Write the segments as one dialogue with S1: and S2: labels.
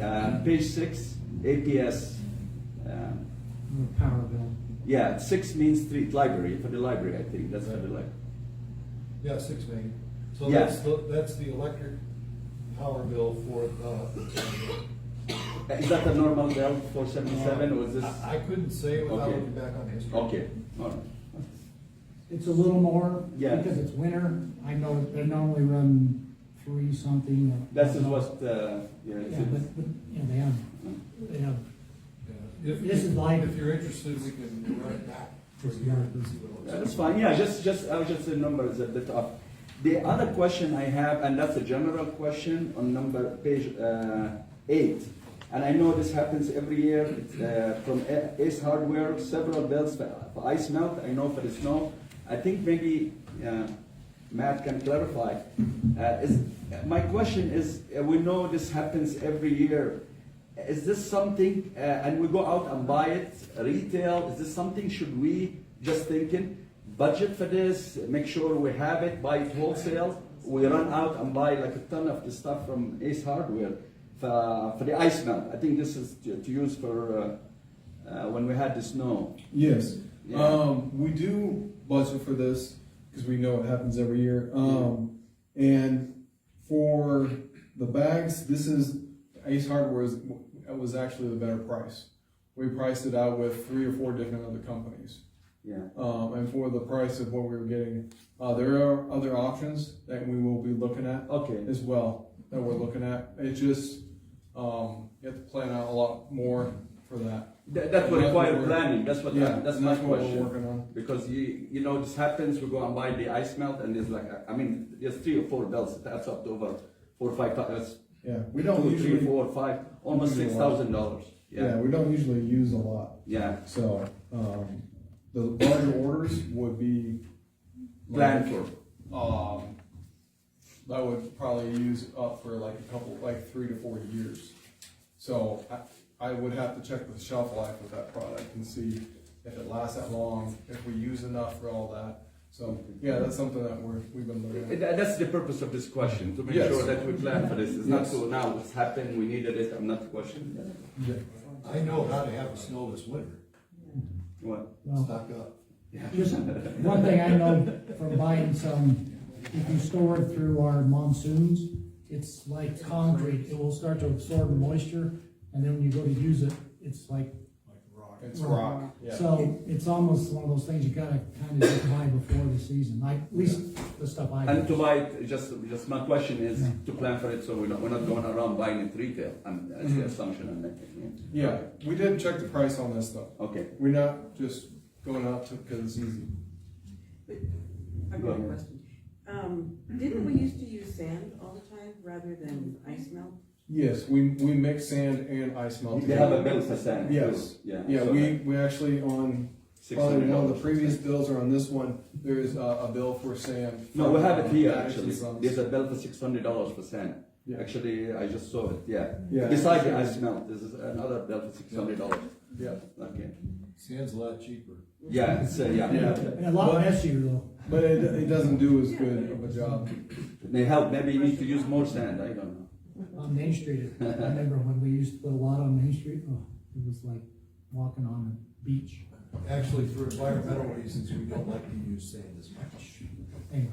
S1: Uh, page six, APS. Um,
S2: Power bill.
S1: yeah, six Main Street Library, for the library, I think, that's for the library.
S3: Yeah, six million. So
S1: Yeah.
S3: that's, the- that's the electric power bill for uh, the.
S1: uh, Is that the normal Dell four seventy-seven, or is this?
S3: I I couldn't say without
S1: Okay.
S3: looking back on history.
S1: Okay, all right.
S2: It's a little more.
S1: Yeah.
S2: Because it's winter, I know they normally run three something. or-
S1: This is what, uh, yeah, it's-
S2: Yeah, but, but, you know, they have, they have,
S3: Yeah. If-
S2: This is live.
S3: If you're interested, we can run it back for a year and see what it looks
S1: Yeah,
S3: like.
S1: That's fine, yeah, just, just, I was just the numbers a bit off. The other question I have, and that's a general question on number, page, uh, eight. And I know this happens every year, it's, uh, from A- Ace Hardware, several bills for for ice melt, I know for the snow. I think maybe, uh, Matt can clarify. Uh, is, my question is, uh, we know this happens every year. Is this something, uh, and we go out and buy it retail, is this something should we, just thinking, budget for this, make sure we have it, buy it wholesale? We run out and buy like a ton of the stuff from Ace Hardware for, for the ice melt. I think this is to, to use for, uh, uh, when we had the snow.
S4: Yes.
S1: Yeah.
S4: Um, we do budget for this because we know it happens every year. Um, and for the bags, this is Ace Hardware is, was actually the better price. We priced it out with three or four different other companies.
S1: Yeah,
S4: Um, and for the price of what we were getting, uh, there are other options that we will be looking at
S1: okay,
S4: as well that we're looking at. It just, um, you have to plan out a lot more for that.
S1: That- that would
S4: Yeah,
S1: require
S4: we're-
S1: planning, that's what,
S4: yeah,
S1: that's
S4: and
S1: my
S4: that's what we're
S1: question.
S4: working on.
S1: Because you you know this happens, we go and buy the ice melt, and there's like I mean there's three or four bells. That's up to over four or five dollars.
S4: Yeah, we don't
S1: two,
S4: usually.
S1: three, four, five, almost
S4: usually
S1: six
S4: a lot.
S1: thousand dollars.
S4: yeah. we don't usually use a lot.
S1: yeah.
S4: So um, the larger orders would be
S1: Plan
S4: like,
S1: for
S4: Um, that would probably use up for like a couple, like three to four years. So I, I would have to check the shelf life of that product and see if it lasts that long, if we use enough for all that. So yeah, that's something that we're we've been looking
S1: And
S4: at.
S1: tha- that's the purpose of this question to make
S4: Yes.
S1: sure that we plan for this. It's not
S4: Yes.
S1: so now it's happened. We needed it. I'm not questioning that.
S4: Yeah.
S3: I know how to have a snow this winter,
S1: What?
S2: well,
S3: stock up.
S2: just one thing I know from buying some, if you store it through our monsoons, it's like concrete, it will start to absorb the moisture, and then when you go to use it, it's like.
S4: It's rock. Yeah.
S2: So it's almost one of those things you gotta kinda just buy before the season, like, at least the stuff I.
S1: And
S2: do.
S1: to buy it, just just my question is to plan for it, so we're not, we're not going around buying it retail. And that's the
S4: Mhm.
S1: assumption I'm making.
S4: yeah, we did check the price on this though.
S1: Yeah. Okay.
S4: We're not just going out to because it's easy.
S5: I've got a question. Um, didn't we used to use sand all the time rather than ice melt?
S4: Yes, we, we mix sand and ice melt.
S1: They have a
S4: together.
S1: bill for sand. too.
S4: Yes.
S1: Yeah.
S4: Yeah,
S1: so
S4: we, we actually on, probably one of the
S1: $600.
S4: previous bills or on this one, there is a, a bill for sand.
S1: No, we have it
S4: from,
S1: here
S4: uh,
S1: actually.
S4: Action Sons.
S1: There's a bill for six hundred dollars for sand.
S4: Yeah.
S1: Actually, I just saw it. Yeah.
S4: Yeah.
S1: Besides the ice melt, this is another bill for six hundred dollars.
S4: Yeah,
S1: Okay.
S3: Sand's a lot cheaper.
S1: Yeah. It's, uh, yeah.
S4: yeah,
S2: And a lot messier though.
S4: but it, it doesn't do as good of a job.
S1: May help. Maybe you need to use more sand. I don't know.
S2: On Main Street, I remember when we used to put a lot on Main Street, oh, it was like walking on a beach.
S3: Actually, for environmental reasons, we don't like to use sand as much.
S2: Anyway,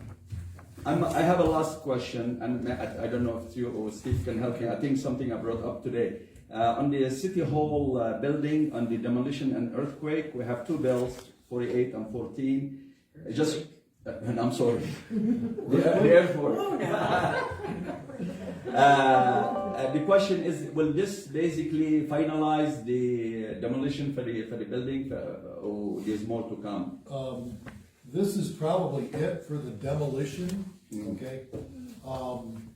S1: I'm, I have a last question, and I, I don't know if you or Steve can help me. I think something I brought up today. Uh, on the City Hall uh, building, on the demolition and earthquake, we have two bills, 48 and 14. Uh, Just, uh, and I'm sorry, the, the airport.
S5: Oh, no.
S1: Uh, uh, the question is, will this basically finalize the demolition for the, for the building, uh, or there's more to come?
S3: Um, this is probably it for the demolition,
S1: Mm.
S3: okay? Um,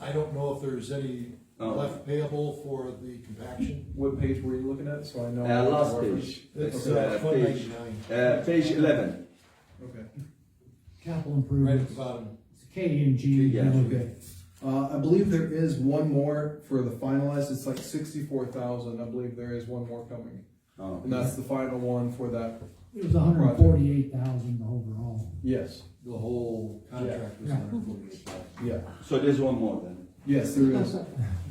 S3: I don't know if there's any
S1: Oh.
S3: left payable for the compaction.
S4: What page were you looking at, so I know?
S1: Uh, last page.
S3: It's
S1: Uh,
S3: one
S1: page,
S3: ninety-nine,
S1: uh, page 11.
S4: Okay.
S2: capital
S3: right at
S2: improvements,
S3: the bottom.
S2: K and G,
S1: Yeah.
S2: okay.
S4: Uh, I believe there is one more for the finalized, it's like sixty-four thousand, I believe there is one more coming.
S1: Oh.
S4: And that's the final one for that,
S2: It was hundred and forty-eight thousand overall.
S4: yes,
S3: The whole contract was
S2: Yeah.
S3: hundred forty-eight thousand.
S4: yeah.
S1: So there's one more then.
S4: Yes, there is.